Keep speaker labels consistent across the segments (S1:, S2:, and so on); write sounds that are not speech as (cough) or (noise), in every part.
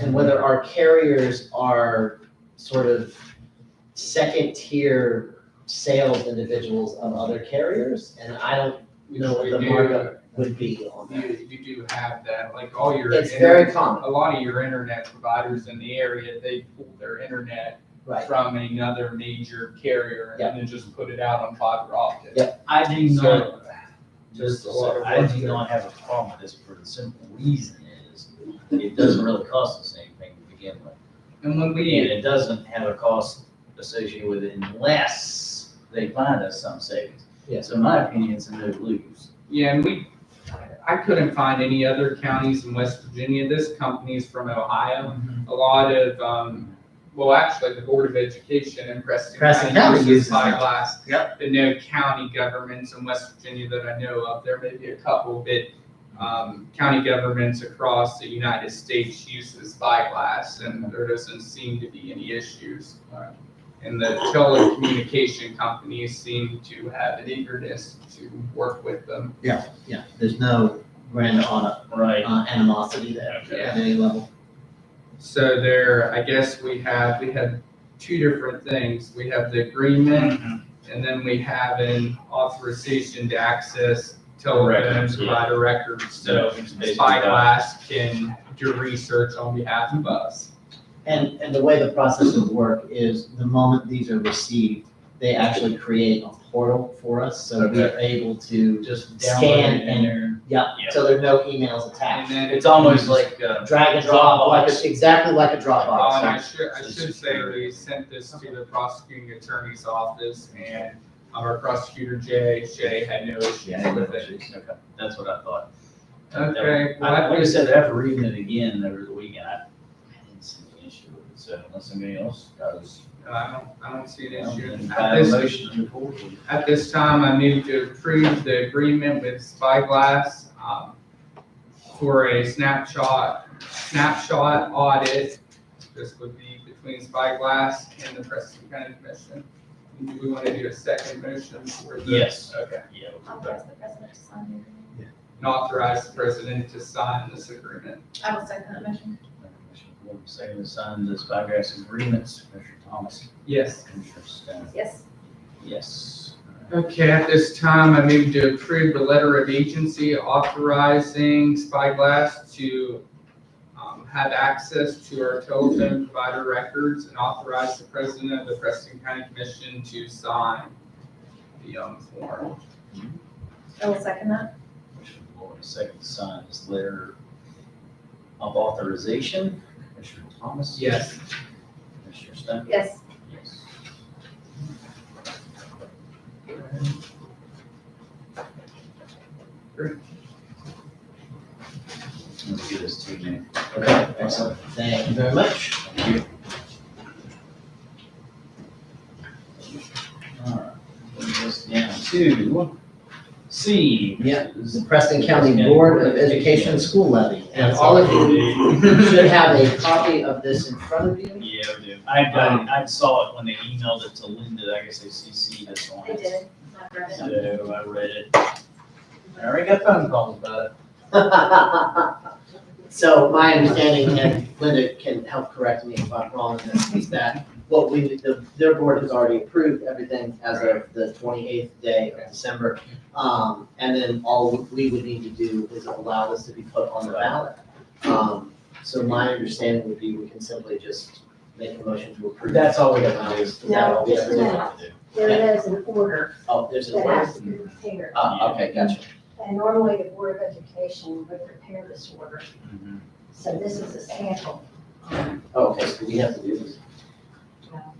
S1: and whether our carriers are sort of second-tier sales individuals of other carriers, and I don't know what
S2: We
S1: the
S2: do-
S1: markup would be on that.
S2: You, you do have that, like all your.
S1: It's
S2: inter-
S1: very common,
S2: A lot of your internet providers in the area, they pull their internet
S1: right?
S2: from another major carrier
S1: Yeah.
S2: and then just put it out on fiber optic.
S1: Yeah.
S3: I do not,
S2: So,
S3: just,
S2: a lot of
S3: I
S2: work
S3: do
S2: there.
S3: not have a problem with this for the simple reason is, it doesn't really cost us anything to begin with.
S2: And when
S3: And
S2: we,
S3: it doesn't have a cost associated with it unless they find us some savings.
S1: Yeah.
S3: So in my opinion, it's a no lose.
S2: yeah, and we, I couldn't find any other counties in West Virginia. This company is from Ohio. A lot of, um, well, actually, the Board of Education in Preston
S3: Preston
S2: County
S3: County
S2: uses
S3: uses it.
S2: fiberglass.
S3: Yep.
S2: But no county governments in West Virginia that I know of, there may be a couple, but, um, county governments across the United States uses spyglass, and there doesn't seem to be any issues. Uh, And the telecommunication companies seem to have an eagerness to work with them.
S1: Yeah, there's no brand on,
S3: Right.
S1: uh, animosity there at any level.
S2: So there, I guess we have, we had two different things. We have the agreement, and then we have an authorization to access telephones,
S3: Records, yeah.
S2: provider records. So
S3: it's basically that.
S2: Spyglass can do research on behalf of us.
S1: And, and the way the process would work is the moment these are received, they actually create a portal for us, so we are able to,
S3: Just
S1: Scan
S3: download it in there.
S1: yeah,
S3: Yeah.
S1: so there are no emails
S2: And
S1: attached.
S2: then
S3: It's almost like, uh,
S1: Drag and drop, like, a- exactly like a
S2: Oh, and I
S1: Dropbox.
S2: should, I should say we sent this to the prosecuting attorney's office and um, our prosecutor Jay, Shay had no
S3: yeah,
S2: issues with it.
S3: okay, that's what I thought.
S2: Okay, well,
S3: I-
S2: I
S3: Like I
S2: think-
S3: said, after reading it again over the weekend, I I didn't see an issue with it, so unless somebody else does.
S2: I don't, I don't see an
S3: um,
S2: issue.
S3: then
S2: At
S3: file a
S2: this
S3: motion to approve it.
S2: At this time, I move to approve the agreement with Spyglass um, for a snapshot, snapshot audit. This would be between Spyglass and the Preston County Commission. Do we want to do a second motion for the?
S3: Yes.
S2: Okay.
S3: Yeah.
S4: Authorize the president to sign the agreement.
S2: And authorize the president to sign this agreement.
S4: I will second that motion.
S3: Commissioner Wood, Second to sign the Spyglass agreements, Commissioner Thomas,
S2: Yes.
S3: Commissioner Stan.
S4: Yes,
S3: Yes.
S2: Okay, at this time, I move to approve the letter of agency authorizing Spyglass to um, have access to our telephone provider records and authorize the president of the Preston County Commission to sign the um, form.
S4: I will second that.
S3: Commissioner Wood, second to sign this letter of authorization, Commissioner Thomas.
S2: Yes.
S3: Commissioner Stan.
S4: Yes,
S3: Yes. Let me do this to you, man.
S1: Okay, excellent, thank you very much.
S3: Alright, Brings us down to C.
S1: Yeah. the Preston County Board of Education School Levy. And all of you should have a copy of this in front of you.
S3: Yeah, we do. I, I, I saw it when they emailed it to Linda, I guess they CC'd us on
S4: I
S3: it.
S4: did. I've read it.
S3: So I read it. I already got phone calls about it.
S1: (laughs) So my understanding, and Linda can help correct me if I'm wrong, in this, is that what we, the, their board has already approved everything as of the twenty-eighth day of December. Um, and then all we would need to do is allow this to be put on the ballot. Um, so my understanding would be we can simply just make a motion to approve.
S3: That's all we
S1: Allow
S3: have to do.
S1: this to go.
S3: That's all we
S1: Yeah.
S3: have to do.
S5: There is an order
S1: Oh, there's a
S5: that
S1: way.
S5: has to be prepared,
S1: Ah, okay, gotcha.
S5: and normally the Board of Education would prepare this order,
S3: Mhm.
S5: so this is a sample. (laughs)
S1: Oh, Okay, so we have to do this.
S5: Now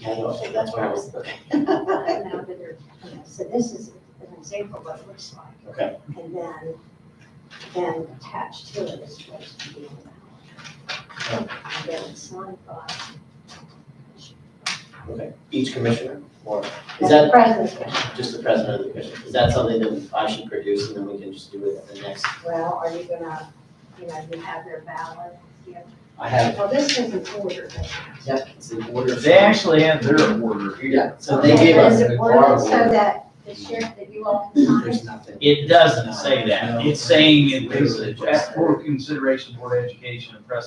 S1: Yeah, okay, that's where I was, okay.
S5: that they're, you know, So this is an example of what it looks like.
S1: Okay.
S5: And then, then attached to it is what's to be in the ballot. And then it's signed by.
S1: Okay. Each commissioner, or is
S5: the
S1: that
S5: president.
S1: just the president of the commission? Is that something that I should produce and then we can just do it at the next?
S5: Well, are you gonna, you know, you have their ballot? you have-
S1: I have,
S5: Well, this is an order. that-
S1: yep, it's in order.
S3: They actually have their order here.
S1: Yeah, so they gave us
S5: Is it
S1: our
S5: ordered so
S1: order.
S5: that the sheriff, that you all can sign it?
S1: There's nothing.
S3: It doesn't say that. It's saying it was
S1: Literally just-
S3: for consideration for education and press